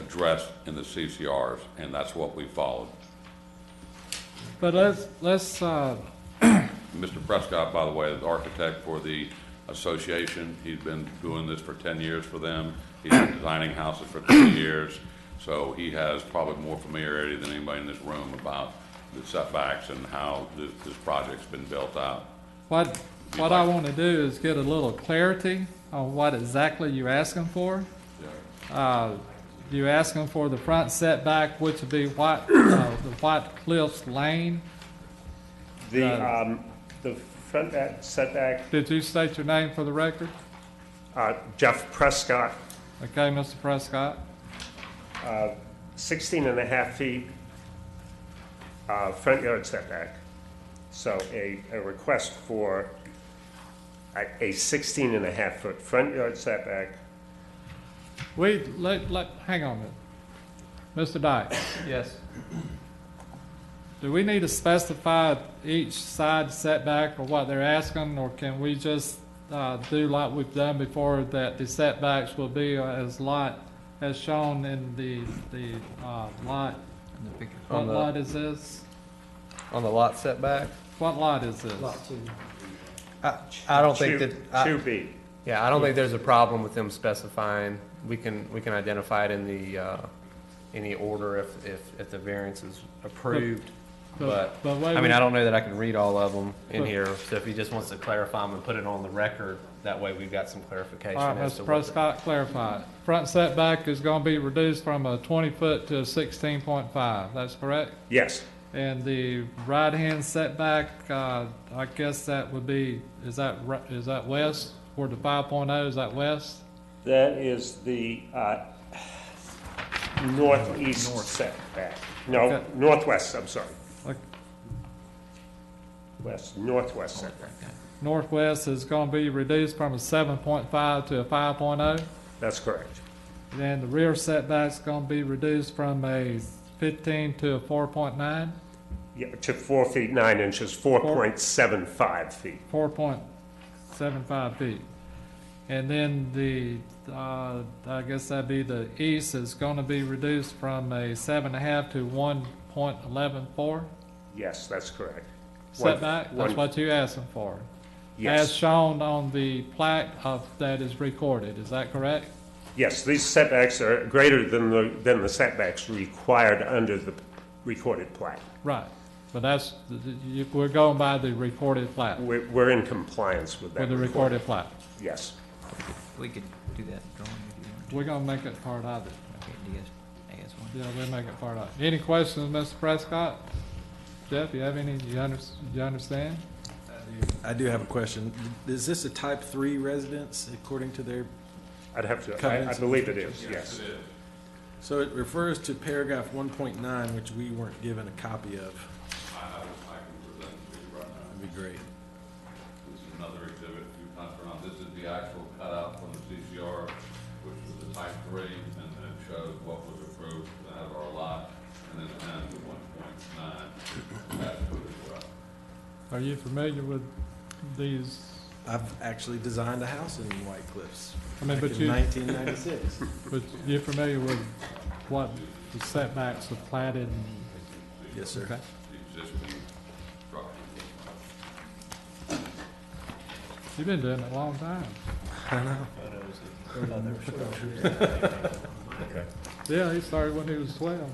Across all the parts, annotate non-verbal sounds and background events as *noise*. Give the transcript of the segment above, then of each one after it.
addressed in the CCRs, and that's what we followed. But let's, let's, uh, Mr. Prescott, by the way, is the architect for the association. He's been doing this for 10 years for them. He's been designing houses for 10 *coughs* years, so he has probably more familiarity than anybody in this room about the setbacks and how this, this project's been built out. what, what I want to do is get a little clarity on what exactly you're asking for. Uh, You're asking for the front setback, which would be White, uh, the White Cliffs Lane. The, Uh, um, the front back setback, Did you state your name for the record? uh, Jeff Prescott, Okay, Mr. Prescott. 16 and a half feet, uh, front yard setback. So a, a request for a, a 16 and a half foot front yard setback. We, let, let, hang on a minute. Mr. Dyke, Yes. do we need to specify each side setback or what they're asking? Or can we just, uh, do like we've done before, that the setbacks will be as lot, as shown in the, the, uh, lot? What On lot the, is this? on the lot setback? What lot is this? I, I don't think that, uh, Two- Two I- B, yeah, I don't think there's a problem with them specifying. We can, we can identify it in the, uh, in the order if, if, if the variance is approved. But, But wait, I mean, I wait. don't know that I can read all of them in But- here, so if he just wants to clarify them and put it on the record, that way we've got some clarification All right, as to Mr. what. the- Prescott, clarify. it. Front setback is gonna be reduced from a twenty foot to a sixteen point five, that's correct? yes, And the right-hand setback, uh, I guess that would be, is that, ri- is that west? Where the five oh, is that west? that is the, uh, northeast setback. No, Okay. northwest, I'm sorry, Like, west, northwest setback, Northwest is gonna be reduced from a seven point five to a five oh. that's correct. Then the rear setback's gonna be reduced from a fifteen to a four point nine, Yeah, to four feet nine inches, four point seven five feet. four point seven five feet. And then the, uh, I guess that'd be the east is gonna be reduced from a seven and a half to one point eleven four. Yes, that's correct. One- setback, that's one- what you're asking for. As Yes, shown on the plaque of, that is recorded, is that correct? yes, these setbacks are greater than the, than the setbacks required under the recorded plat. Right, but that's, th- th- you- we're going by the recorded plaque, We're, we're in compliance with that. with the record. recorded plaque. Yes. We could do that drawing if you want. We're gonna make it part of it. Okay, do you guys, I Yeah, we'll make it part of it. Any questions, Mr. Prescott? Jeff, you have any, you under, you understand? I do have a question. Is this a type three residence according to their, I'd have to, I, I Covenants and believe it is, yes. so it refers to paragraph one point nine, which we weren't given a copy of. That'd be great. This is another exhibit, you've not turned on, this is the actual cutout from the CCR, which was the type three, and then it shows what was approved out of our lot, and then it has the one point nine attached to it as well. Are you familiar with these? I've actually designed a house in White Cliffs I mean, back but in you, nineteen ninety-six. *laughs* but you're familiar with what the setbacks are platted and Yes, sir. Okay. The existing structure. You've been doing it a long time. I know. Yeah, he started when he was twelve.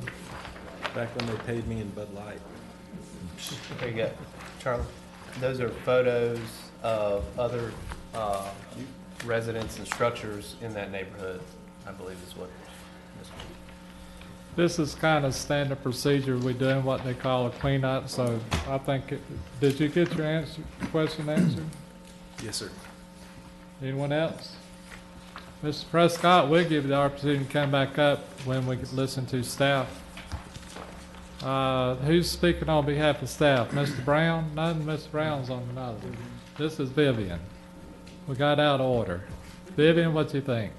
Back when they paid me in Bud Light. There you go, Charlie. Those are photos of other, uh, residents and structures in that neighborhood, I believe is what. This is kind of standard procedure. We're doing what they call a cleanup, so I think, it- did you get your answer, question answered? Yes, sir. Anyone else? Mr. Prescott, we'll give you the opportunity to come back up when we can listen to staff. Uh, Who's speaking on behalf of staff? Mr. Brown? None, Mr. Brown's on another. This is Vivian. We got out of order. Vivian, what you think?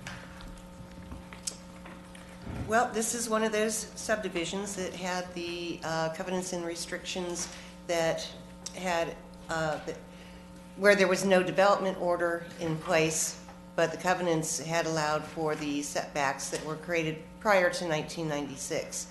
Well, this is one of those subdivisions that had the uh, covenants and restrictions that had, uh, that- where there was no development order in place but the covenants had allowed for the setbacks that were created prior to 1996.